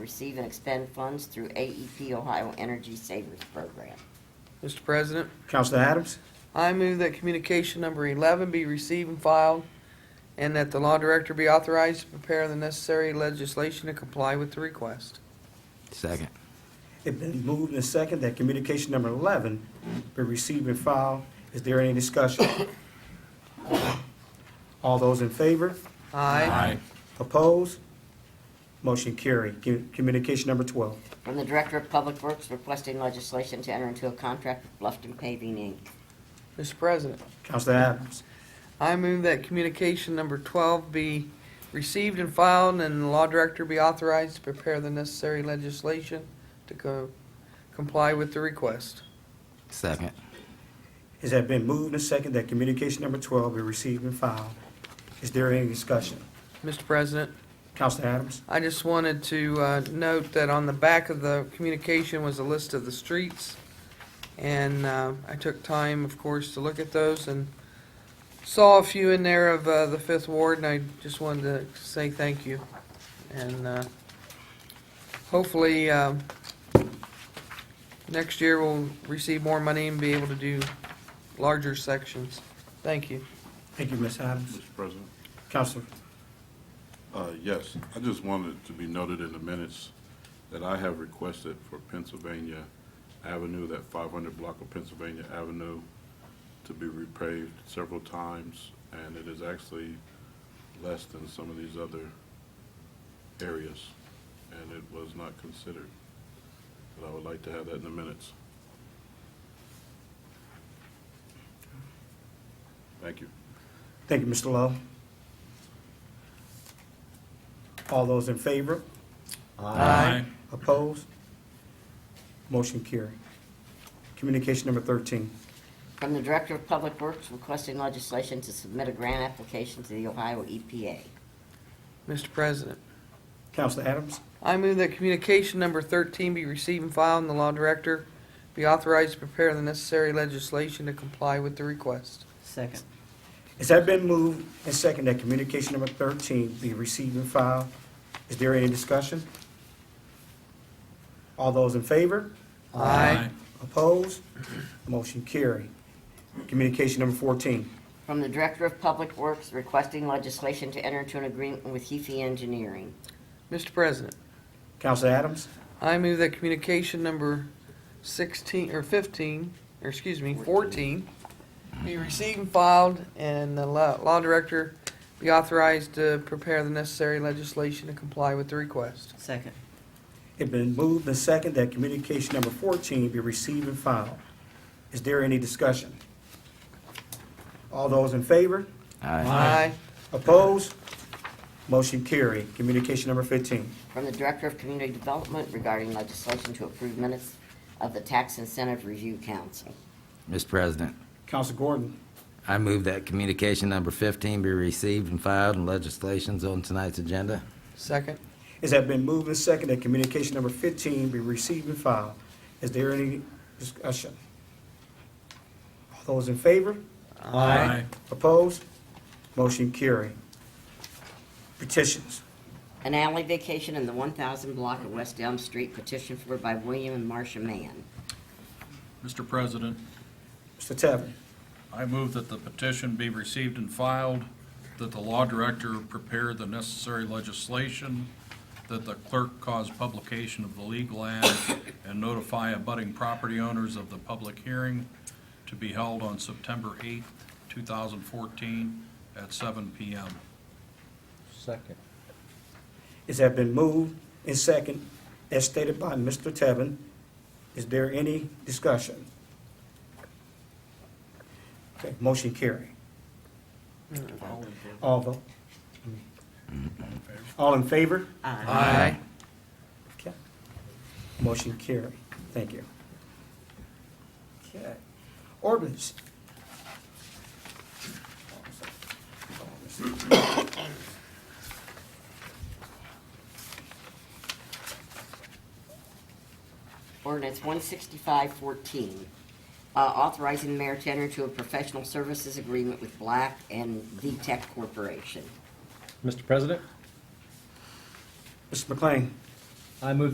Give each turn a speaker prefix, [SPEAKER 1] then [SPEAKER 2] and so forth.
[SPEAKER 1] receive and expend funds through AEP Ohio Energy Savers Program.
[SPEAKER 2] Mr. President,
[SPEAKER 3] Counselor Adams?
[SPEAKER 2] I move that communication number 11 be received and filed, and that the law director be authorized to prepare the necessary legislation to comply with the request.
[SPEAKER 4] Second.
[SPEAKER 3] It been moved and second that communication number eleven be received and filed. Is there any discussion? All those in favor?
[SPEAKER 2] Aye.
[SPEAKER 3] Opposed? Motion carried. Cu- Communication number twelve.
[SPEAKER 1] From the Director of Public Works requesting legislation to enter into a contract with Bluffton Paving Inc.
[SPEAKER 2] Mr. President,
[SPEAKER 3] Counselor Adams?
[SPEAKER 2] I move that communication number 12 be received and filed, and the law director be authorized to prepare the necessary legislation to co- comply with the request.
[SPEAKER 4] Second.
[SPEAKER 3] It has been moved and second that communication number twelve be received and filed. Is there any discussion?
[SPEAKER 2] Mr. President,
[SPEAKER 3] Counselor Adams?
[SPEAKER 2] I just wanted to uh, note that on the back of the communication was a list of the streets. And uh, I took time, of course, to look at those and saw a few in there of uh, the Fifth Ward. And I just wanted to say thank you. And uh, hopefully, um, next year we'll receive more money and be able to do larger sections. Thank you.
[SPEAKER 3] Thank you, Ms. Adams.
[SPEAKER 5] Mr. President?
[SPEAKER 3] Counselor,
[SPEAKER 5] Uh, Yes, I just wanted to be noted in the minutes that I have requested for Pennsylvania Avenue, that 500 block of Pennsylvania Avenue, to be repaved several times, and it is actually less than some of these other areas, and it was not considered. But I would like to have that in the minutes. Thank you.
[SPEAKER 3] thank you, Mr. Lowe. All those in favor?
[SPEAKER 2] Aye.
[SPEAKER 3] Opposed? Motion carried. Communication number 13.
[SPEAKER 1] From the Director of Public Works requesting legislation to submit a grant application to the Ohio E EPA.
[SPEAKER 2] Mr. President.
[SPEAKER 3] Counselor Adams?
[SPEAKER 2] I move that communication number 13 be received and filed, and the law director be authorized to prepare the necessary legislation to comply with the request.
[SPEAKER 1] Second.
[SPEAKER 3] It's has been moved and second that communication number 13 be received and filed. Is there any discussion? All those in favor?
[SPEAKER 2] Aye.
[SPEAKER 3] Opposed? Motion carried. Communication number 14.
[SPEAKER 1] From the Director of Public Works requesting legislation to enter into an agreement with Hefe Engineering.
[SPEAKER 2] Mr. President,
[SPEAKER 3] Counselor Adams?
[SPEAKER 2] I move that communication number 16, or 15, or excuse me, 14, be received and filed, and the law law director be authorized to prepare the necessary legislation to comply with the request.
[SPEAKER 1] Second.
[SPEAKER 3] It been moved and second that communication number 14 be received and filed. Is there any discussion? All those in favor?
[SPEAKER 4] Aye.
[SPEAKER 3] Opposed? Motion carried. Communication number 15.
[SPEAKER 1] From the Director of Community Development regarding legislation to approve minutes of the Tax Incentive Review Council.
[SPEAKER 4] Mr. President,
[SPEAKER 3] Counsel Gordon.
[SPEAKER 4] I move that communication number 15 be received and filed and legislations on tonight's agenda.
[SPEAKER 2] Second.
[SPEAKER 3] It has been moved and second that communication number 15 be received and filed. Is there any discussion? All those in favor?
[SPEAKER 2] Aye.
[SPEAKER 3] Opposed? Motion carried. Petitions.
[SPEAKER 1] An alley vacation in the 1,000 block of West Elm Street petitioned for by William and Marcia Mann.
[SPEAKER 6] Mr. President,
[SPEAKER 3] Mr. Tevin.
[SPEAKER 6] I move that the petition be received and filed, that the law director prepare the necessary legislation, that the clerk cause publication of the legal ad and notify abutting property owners of the public hearing to be held on September 8th, 2014, at 7 PM.
[SPEAKER 3] It has been moved and second as stated by Mr. Tevin. Is there any discussion? Okay, motion carried. All vote. All in favor?
[SPEAKER 1] Uh,
[SPEAKER 2] Aye.
[SPEAKER 3] Okay. Motion carried. Thank you. Okay. Ordinance.
[SPEAKER 1] Ordinance 16514, uh, authorizing the mayor to enter into a professional services agreement with Black and VTech Corporation.
[SPEAKER 7] Mr. President,
[SPEAKER 3] Mr. McLean.
[SPEAKER 7] I move